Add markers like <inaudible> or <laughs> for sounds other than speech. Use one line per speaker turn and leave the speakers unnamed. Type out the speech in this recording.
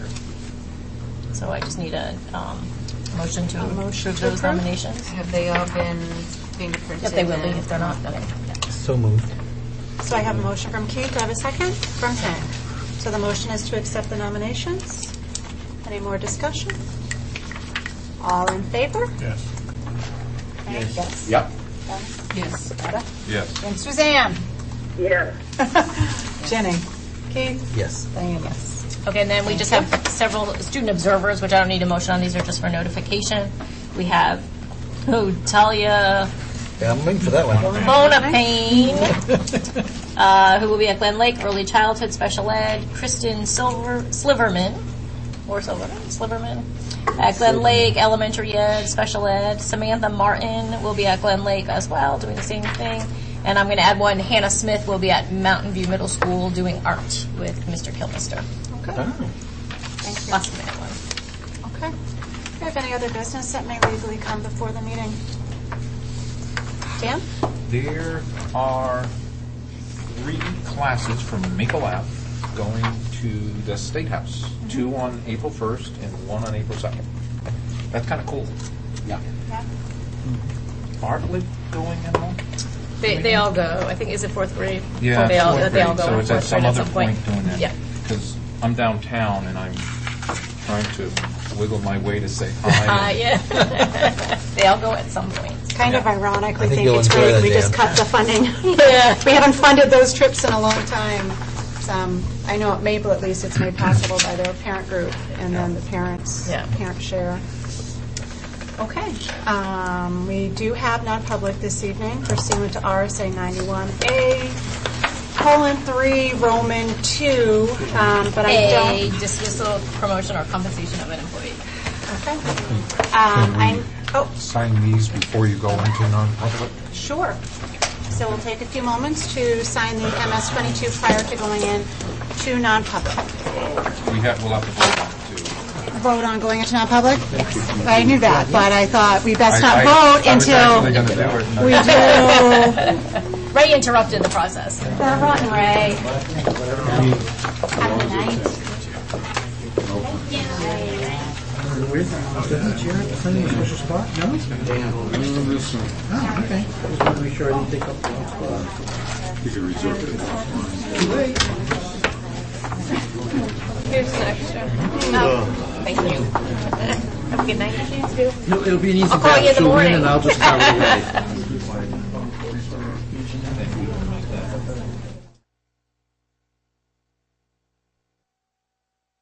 So I just need a um, motion to
A motion
approve
to
those
approve?
nominations.
Have they all been fingerprinted?
If they will be,
and-
if they're not, okay.
So moved.
So I have a motion from Keith, do I have a second? From Hank. So the motion is to accept the nominations. Any more discussion? All in favor?
Yes.
Yes.
Yep.
Yes.
Yes.
And Suzanne?
Jenny? Keith?
Yes.
Diane, yes.
Okay, and then we just have several student observers, which I don't need a motion on, these are just for notification. We have oh, Talia
Yeah, I'm waiting for that one.
Bonapane, uh, who will be at Glen Lake, early childhood special ed, Kristen Silver, Sliverman, or Silverman, Sliverman, at Glen Lake Elementary Ed, special ed, Samantha Martin will be at Glen Lake as well, doing the same thing, and I'm going to add one, Hannah Smith will be at Mountain View Middle School doing art with Mr. Kilmister. Lots of minute ones.
Okay. Do you have any other business that may legally come before the meeting? Dan?
There are three classes from Maple Ave going to the State House. Two on April 1st and one on April 2nd. That's kind of cool. Yeah.
Yeah.
Bartlett going in one?
They, they all go. I think is it fourth grade?
Yeah.
they all,
fourth
they all
grade.
go
So
on
it's at
fourth grade at
some other
some point.
point doing that.
Yeah.
Because I'm downtown and I'm trying to wiggle my way
<laughs>
to say
Uh,
hi.
yeah. <laughs> they all go at some point.
Kind of ironic, we
I think
think
you'll
it's
enjoy
great,
that,
we just
Dan.
cut the funding.
<laughs>
We haven't funded those trips in a long time. It's, um, I know at Maple, at least, it's made possible by their parent group and then the parents,
Yeah.
parent share. Okay, um, we do have non-public this evening pursuant to RSA 91A, colon 3, Roman 2, um, but I don't...
A dismissal, promotion, or compensation of an employee.
Okay. Um, I'm, oh,
Sign these before you go into non-public?
Sure. So we'll take a few moments to sign the MS-22 prior to going in to non-public.
We have, we'll have to vote on it too.
Vote on going into non-public? I knew that, but I thought we best
I-
not
I-
vote
I was actually
until
gonna do it, and I-
we
<laughs>
do.
Ray interrupted the process.
They're rotten, Ray. Have a good night.
Here's an extra. Thank you. Have a good night.
No, it'll be an easy
I'll call you in the
batch. She'll win
morning.
and I'll just carry it away.